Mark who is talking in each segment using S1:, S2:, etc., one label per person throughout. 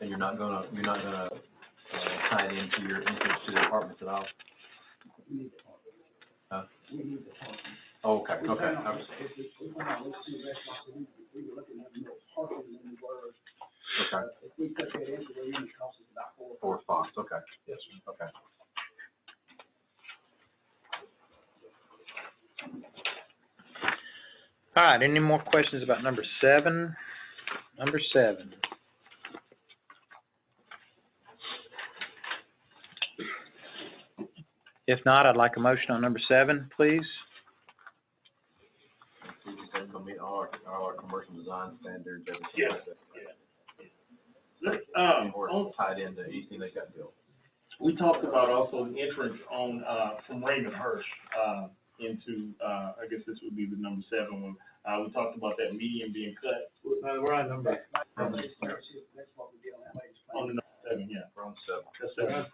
S1: and you're not gonna, you're not gonna, uh, tie it into your entrance to the apartments at all? Huh? Okay, okay, okay. Okay. Four spots, okay. Yes. Okay.
S2: All right, any more questions about number seven? Number seven. If not, I'd like a motion on number seven, please.
S1: We just have to meet all our, all our commercial design standards, everything.
S3: Yeah,
S1: like that.
S3: Let's, uh,
S1: And we're
S3: on-
S1: tied into anything that got built.
S3: we talked about also an entrance on, uh, from Raymond Hirsch, uh, into, uh, I guess this would be the number seven one. Uh, we talked about that median being cut. Uh, we're on number. On the number seven, yeah,
S1: Room seven.
S3: that's seven.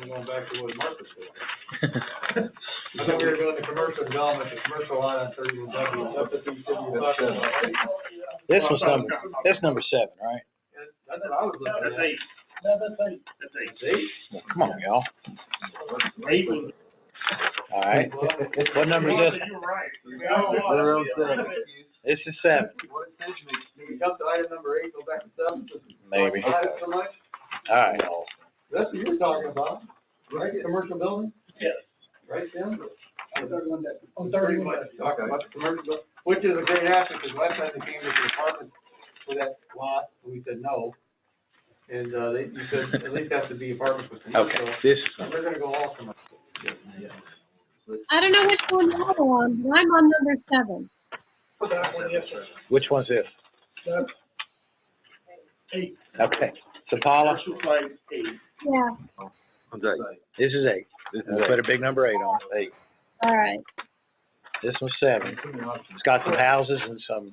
S4: And going back to what Marcus said. I thought we were doing the commercial development, the commercial line on thirty-one W, that's what these cities were talking about.
S2: This was number, that's number seven, right?
S4: That's what I was looking
S3: That's
S4: at.
S3: eight. That's eight.
S2: Well, Come on, y'all.
S3: Eight was.
S2: All right, what number is this?
S3: You were right.
S1: Room seven.
S2: This is seven,
S4: What it says, we, we jump to item number eight, go back to seven.
S2: maybe. All
S4: Item so much,
S2: right.
S4: that's what you were talking about, right, commercial building?
S3: Yes.
S4: Right, Tim? On thirty-one W. On
S1: thirty-one.
S4: Talking about the commercial, buil- which is a great asset, because last time they came to the apartment for that lot, we said no. And, uh, they, you said, at least has to be apartments with commercial.
S2: Okay, this is
S4: They're gonna go all commercial.
S5: I don't know which one you're on, but I'm on number seven.
S2: Which one's this?
S3: Eight.
S2: Okay, so Paula,
S3: Commercial site, eight.
S5: Yeah,
S2: this is eight. Let's put a big number eight on it. Eight.
S5: all right.
S2: This one's seven. It's got some houses and some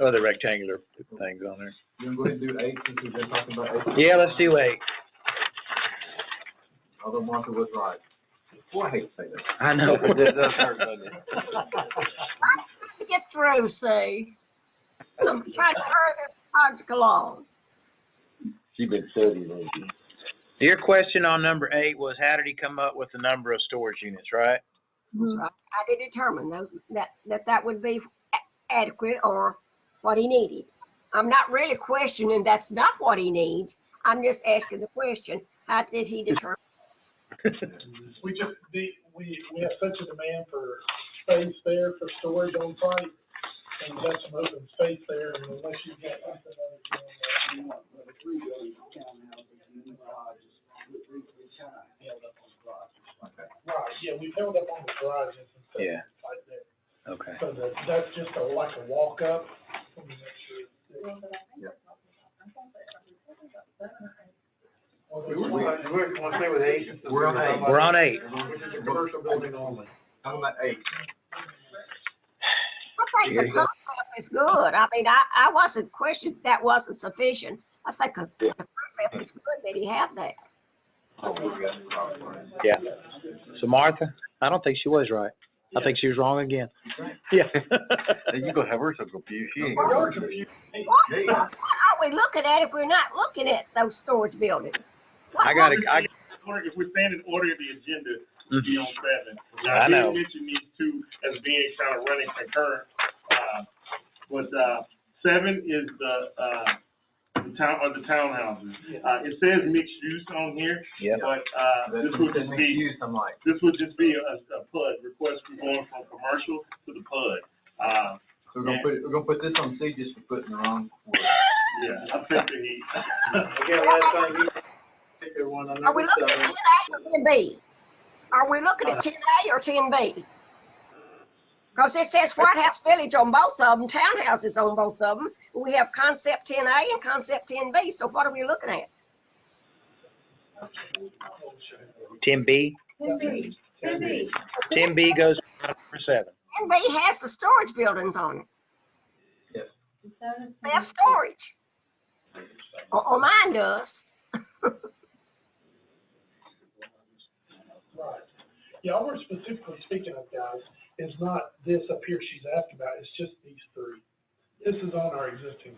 S2: other rectangular things on there.
S1: You wanna go ahead and do eight, since we've been talking about eight?
S2: Yeah, let's do eight.
S1: Although Martha was right. Boy, I hate to say that.
S2: I know.
S6: to get through, see? I'm trying to hurry this project along.
S2: Your question on number eight was how did he come up with the number of storage units, right?
S5: Mm-hmm.
S6: So I I did determine those, that, that that would be a- adequate or what he needed. I'm not really questioning that's not what he needs. I'm just asking the question, how did he determine?
S7: we just, the, we, we have such a demand for space there for storage on site, and we have some open space there, and unless you get something other than that, you want, but three buildings, townhouses, and then garages, we, we, we kind of held up on the garages.
S1: Okay.
S7: Right, yeah, we held up on the garages and stuff
S2: Yeah.
S7: like that,
S2: Okay.
S7: so that, that's just a, like a walk-up, let me make sure.
S4: We were, we were, wanna stay with eight. since
S1: We're on
S4: talking
S1: eight.
S4: about-
S2: We're on eight.
S4: Which is a commercial building only.
S1: Talking about eight.
S6: I think the
S2: Yeah.
S6: concept is good. I mean, I, I wasn't questioning, that wasn't sufficient. I think the the concept is good that he have that.
S1: Oh, we got the problem right.
S2: Yeah. So Martha, I don't think she was right. I think she was wrong again. Yeah.
S1: You gonna have her so confused, she ain't.
S6: What, what are we looking at if we're not looking at those storage buildings? What-
S2: I gotta, I,
S3: Order- If we stand in order of the agenda, we'd be on seven.
S2: I know.
S3: Now, you mentioned these two as being kind of running concurrent, uh, but, uh, seven is the, uh, the town, or the townhouses. Uh, it says mixed use on here,
S2: yeah.
S3: but, uh,
S1: That's
S3: this
S1: what
S3: would
S1: says
S3: just be
S1: mixed use, I'm like,
S3: This would just be a, a PUD, request for going from commercial to the PUD. Uh,
S1: so we're gonna put, it- we're gonna put this on C just for putting the wrong word.
S3: yeah, I think that he,
S4: Again, last time you picked the one on
S6: Are we
S4: number
S6: looking at
S4: seven.
S6: ten A or ten B? Are we looking at ten A or ten B? Cause it says White House Village on both of them, townhouses on both of them. We have concept ten A and concept ten B, so what are we looking at?
S2: Ten B, ten B goes for number seven.
S6: Ten B has the storage buildings on it.
S1: Yes.
S6: They have storage. Or, or mine does.
S7: Right. Yeah, all we're specifically speaking of, guys, is not this up here she's asked about, it's just these three. This is on our existing